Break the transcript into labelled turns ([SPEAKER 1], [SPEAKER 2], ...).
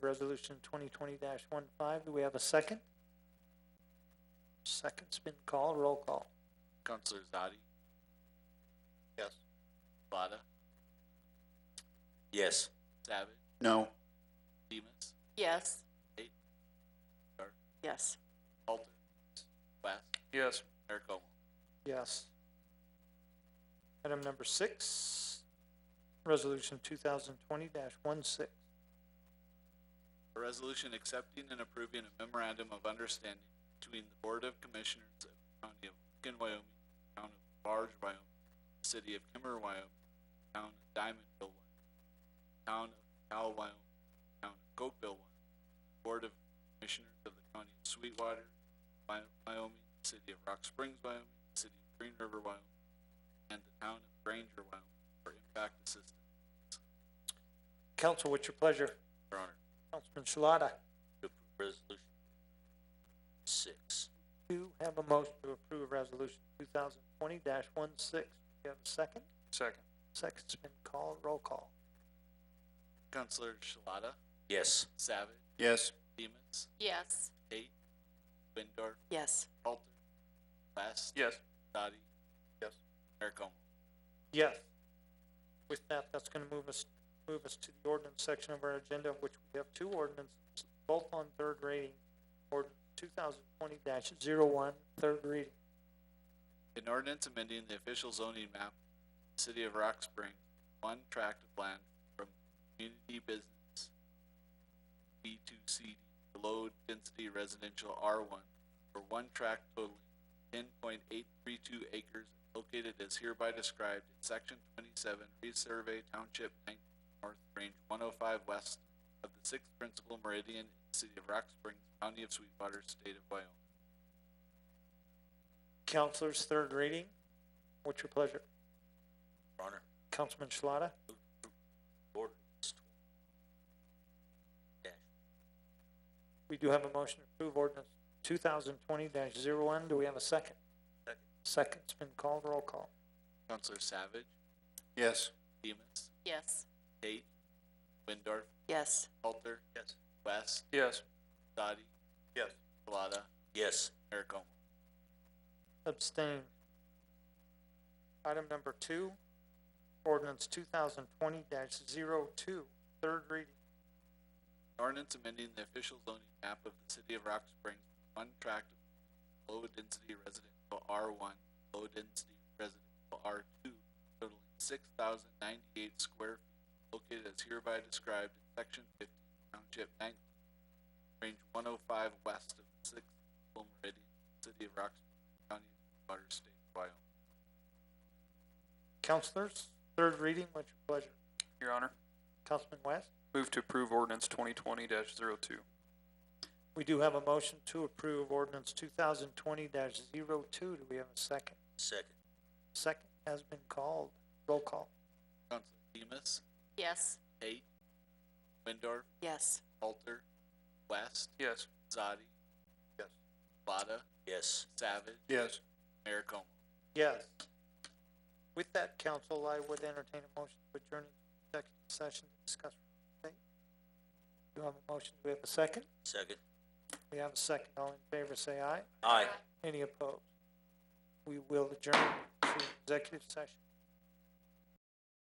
[SPEAKER 1] Resolution twenty twenty 15 do we have a second? Second's been called, roll call.
[SPEAKER 2] Counselor Zadi?
[SPEAKER 3] Yes.
[SPEAKER 2] Vada?
[SPEAKER 3] Yes.
[SPEAKER 2] Savage?
[SPEAKER 3] No.
[SPEAKER 2] Demus?
[SPEAKER 4] Yes.
[SPEAKER 2] Eight. Or-
[SPEAKER 4] Yes.
[SPEAKER 2] Halter? West?
[SPEAKER 3] Yes.
[SPEAKER 2] Eric Como?
[SPEAKER 1] Yes. Item number six, resolution two thousand twenty 16
[SPEAKER 2] A resolution accepting and approving a memorandum of understanding between the Board of Commissioners of the County of Lincoln, Wyoming, Town of Large, Wyoming, City of Kimmer, Wyoming, Town of Diamondville, Wyoming, Town of Cal, Wyoming, Town of Cokeville, Wyoming, Board of Commissioners of the County of Sweetwater, Wy- Wyoming, City of Rock Springs, Wyoming, City of Green River, Wyoming, and the Town of Granger, Wyoming, for impact assistance,
[SPEAKER 1] Council, what's your pleasure?
[SPEAKER 2] Your Honor.
[SPEAKER 1] Councilman Shalata,
[SPEAKER 3] Resolution six.
[SPEAKER 1] you have a motion to approve resolution two thousand twenty 16 do you have a second?
[SPEAKER 3] Second.
[SPEAKER 1] Second's been called, roll call.
[SPEAKER 2] Counselor Shalata,
[SPEAKER 3] Yes.
[SPEAKER 2] Savage,
[SPEAKER 3] Yes.
[SPEAKER 2] Demus,
[SPEAKER 4] Yes.
[SPEAKER 2] Eight, Windor,
[SPEAKER 4] Yes.
[SPEAKER 2] Halter, West,
[SPEAKER 3] Yes.
[SPEAKER 2] Dottie.
[SPEAKER 3] Yes.
[SPEAKER 2] Merrick Owen.
[SPEAKER 1] Yes. With that, that's gonna move us, move us to the ordinance section of our agenda, of which we have two ordinances, both on third reading. Ordinance two thousand twenty dash zero one, third reading.
[SPEAKER 2] An ordinance amending the official zoning map, of the city of Rock Spring, one tract of land from community business B two C to low density residential R one, for one tract totaling ten point eight three two acres located as hereby described in section twenty-seven, resurvey township nineteen north, range one oh five west of the sixth principal meridian, in the city of Rock Springs, county of Sweetwater, state of Wyoming.
[SPEAKER 1] Counselors, third reading. What's your pleasure?
[SPEAKER 3] Your Honor.
[SPEAKER 1] Councilman Schlata?
[SPEAKER 3] Ordinance dash.
[SPEAKER 1] We do have a motion to approve ordinance two thousand twenty dash zero one. Do we have a second?
[SPEAKER 3] Second.
[SPEAKER 1] Second's been called. Roll call.
[SPEAKER 2] Counselor Savage,
[SPEAKER 3] Yes.
[SPEAKER 2] Demus,
[SPEAKER 4] Yes.
[SPEAKER 2] Tate, Windorf,
[SPEAKER 4] Yes.
[SPEAKER 2] Halter,
[SPEAKER 3] Yes.
[SPEAKER 2] West,
[SPEAKER 3] Yes.
[SPEAKER 2] Dottie,
[SPEAKER 3] Yes.
[SPEAKER 2] Shalata,
[SPEAKER 3] Yes.
[SPEAKER 2] Eric Owen.
[SPEAKER 1] Abstain. Item number two, ordinance two thousand twenty dash zero two, third reading.
[SPEAKER 2] Ordinance amending the official zoning map of the city of Rock Springs, from one tract of low density residential R one, low density residential R two, totaling six thousand ninety-eight square feet, located as hereby described in section fifty, township nineteen, range one oh five west of the sixth full meridian, city of Rock Springs, county of Water, state of Wyoming.
[SPEAKER 1] Counselors, third reading, what's your pleasure?
[SPEAKER 5] Your Honor,
[SPEAKER 1] Councilman West?
[SPEAKER 5] move to approve ordinance twenty twenty 2
[SPEAKER 1] We do have a motion to approve ordinance two thousand twenty dash zero two. Do we have a second?
[SPEAKER 3] Second.
[SPEAKER 1] Second has been called. Roll call.
[SPEAKER 2] Counselor Demus,
[SPEAKER 4] Yes.
[SPEAKER 2] Tate, Windor,
[SPEAKER 4] Yes.
[SPEAKER 2] Halter, West,
[SPEAKER 5] Yes.
[SPEAKER 2] Zadi.
[SPEAKER 3] Yes.
[SPEAKER 2] Vada,
[SPEAKER 3] Yes.
[SPEAKER 2] Savage,
[SPEAKER 3] Yes.
[SPEAKER 2] Mayor Como.
[SPEAKER 1] Yes. With that, council, I would entertain a motion to adjourn to executive session to discuss. real estate. Do you have a motion? Do we have a second?
[SPEAKER 3] Second.
[SPEAKER 1] We have a second. All in favor, say aye.
[SPEAKER 3] Aye.
[SPEAKER 1] Any opposed? We will adjourn to executive session.